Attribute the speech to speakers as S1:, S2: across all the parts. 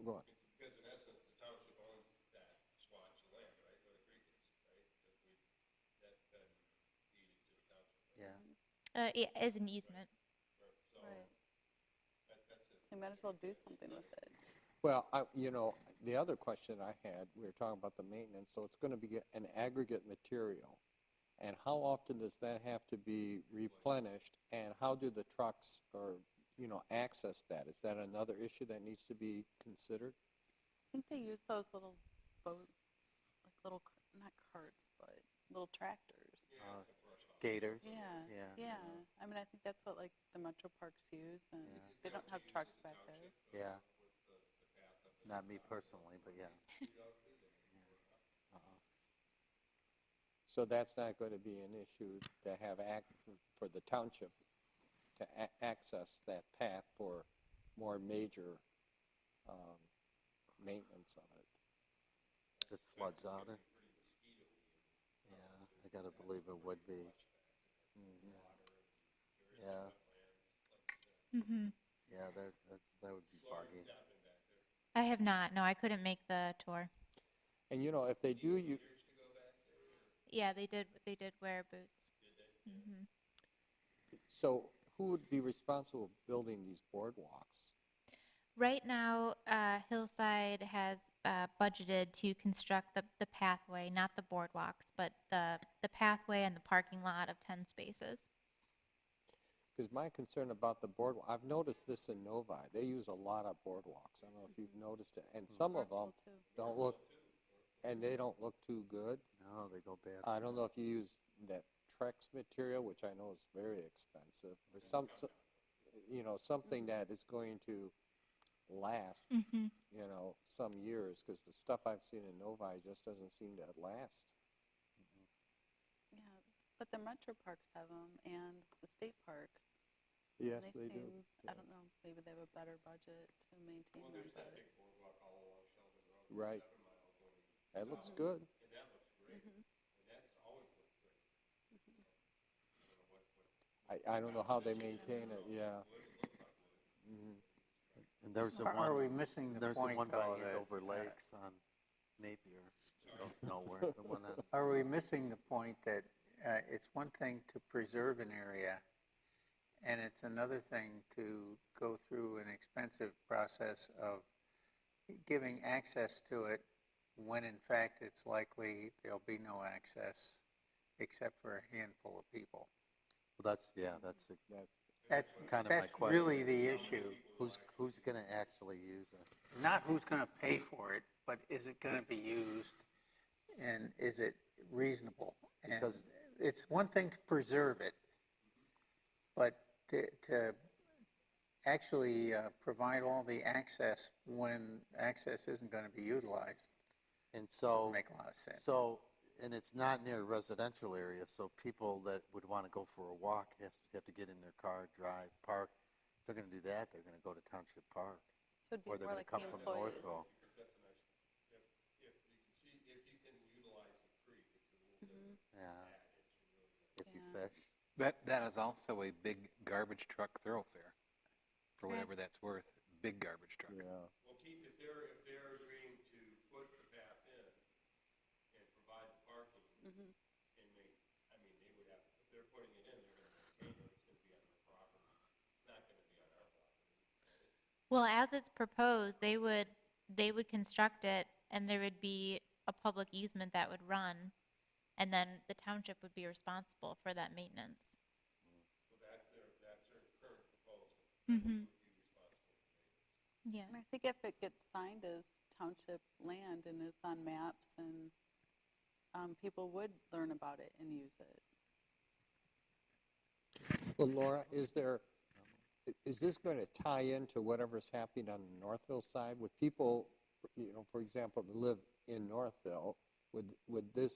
S1: Go on.
S2: Because in essence, the township owns that swatch of land, right, where the creek is, right? That we, that's been deeded to the township. right?
S3: Yeah.
S4: Uh, yeah, as an easement.
S2: Right, So,
S5: Right.
S2: that, that's it.
S5: So you might as well do something with it.
S1: Well, I, you know, the other question I had, we were talking about the maintenance, so it's gonna be an aggregate material. And how often does that have to be replenished, and how do the trucks or, you know, access that? Is that another issue that needs to be considered?
S5: I think they use those little boat, like little, c- not carts, but little tractors.
S2: Yeah, it's a brush off.
S3: uh, Gators.
S5: Yeah,
S3: Yeah.
S5: yeah. I mean, I think that's what like the metro parks use and
S3: Yeah.
S5: they don't have trucks back there.
S3: Yeah. Not me personally, but yeah. Uh-uh.
S1: So that's not gonna be an issue to have act, for the township to a- access that path for more major, um, maintenance of it.
S3: It floods out it. Yeah, I gotta believe it would be.
S1: Mm-hmm.
S3: Yeah,
S4: Mm-hmm.
S3: yeah, there, that's, that would be boggy.
S4: I have not. No, I couldn't make the tour.
S1: And you know, if they do, you,
S4: Yeah, they did. They did wear boots. Mm-hmm.
S1: So who would be responsible for building these boardwalks?
S4: Right now, uh, Hillside has uh, budgeted to construct the, the pathway, not the boardwalks, but the, the pathway and the parking lot of 10 spaces.
S1: Because my concern about the boardwalk, I've noticed this in Novi, they use a lot of boardwalks. I don't know if you've noticed it, and some of them
S5: Parcel too.
S1: don't look, and they don't look too good.
S3: No, they go bad.
S1: I don't know if you use that Trex material, which I know is very expensive, or some, so- you know, something that is going to last,
S4: Mm-hmm.
S1: you know, some years, because the stuff I've seen in Novi just doesn't seem to last.
S5: Yeah, but the metro parks have them and the state parks.
S1: Yes,
S5: they,
S1: they do.
S5: seem,
S1: yeah.
S5: I don't know, maybe they have a better budget to maintain
S2: Well,
S5: them.
S2: there's that
S5: But,
S2: big boardwalk all along Sheldon Road.
S1: Right.
S2: Seven miles when you-
S1: That looks
S2: Um,
S1: good.
S2: And that looks great,
S5: Mhm.
S2: and that's always looked great. I don't know what, what.
S1: I, I don't know how they maintain it, yeah. Mhm.
S3: And there's the
S6: Are- Are we
S3: one,
S6: missing the
S3: there's the
S6: point, uh,
S3: one by
S6: though, that-
S3: Andover Lakes on Napier, goes nowhere, the one on,
S6: Are we missing the point that uh, it's one thing to preserve an area, and it's another thing to go through an expensive process of giving access to it when in fact it's likely there'll be no access except for a handful of people?
S3: that's, yeah, that's, the-
S1: That's,
S6: That's,
S3: Kind of my
S6: that's
S3: question.
S6: really the issue.
S3: who's, who's gonna actually use it?
S6: not who's going to pay for it, but is it going to be used? And is it reasonable? And
S3: Because-
S6: it's one thing to preserve it, but to, to actually uh, provide all the access when access isn't going to be utilized,
S3: And
S6: doesn't
S3: so,
S6: make a lot of sense.
S3: so, and it's not near a residential area, so people that would wanna go for a walk have, have to get in their car, drive, park. If they're gonna do that, they're gonna go to Township Park,
S5: So it'd be
S3: or they're
S5: more
S3: gonna
S5: like the
S3: come from
S5: employees.
S3: Northville.
S2: That's a nice, if, if you can see, if you can utilize the creek, it's a little
S5: Mhm.
S2: different
S3: Yeah,
S2: package. and really
S3: if you
S5: Yeah.
S3: fish.
S7: That, that is also a big garbage truck thoroughfare, for
S4: Okay.
S7: whatever that's worth, big garbage truck.
S1: yeah.
S2: Well, Keith, if they're, if they're agreeing to put the path in and provide the parking,
S5: Mhm.
S2: and they, I mean, they would have, if they're putting it in, they're gonna maintain it, it's gonna be on their property. It's not gonna be on our property.
S4: Well, as it's proposed, they would, they would construct it and there would be a public easement that would run. And then the township would be responsible for that maintenance.
S2: So that's their, that's their current proposal. Would
S4: Mm-hmm.
S2: be responsible.
S4: Yeah.
S5: And I think if it gets signed as township land and is on maps and, um, people would learn about it and use it.
S1: Well, Laura, is there, i- is this going to tie into whatever's happening on the Northville side? Would people, you know, for example, that live in Northville, would, would this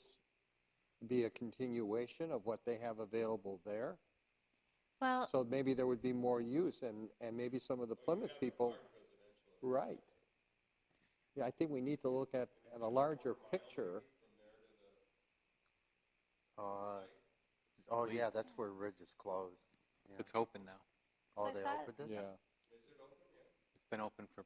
S1: be a continuation of what they have available there?
S4: Well,
S1: So maybe there would be more use and, and maybe some of the Plymouth people. Right. Yeah, I think we need to look at, at a larger picture.
S3: Uh, oh yeah, that's where Ridge is closed. Yeah.
S7: It's open now.
S3: Oh,
S5: I
S3: they
S5: thought-
S3: opened it?
S1: Yeah.
S7: It's been open for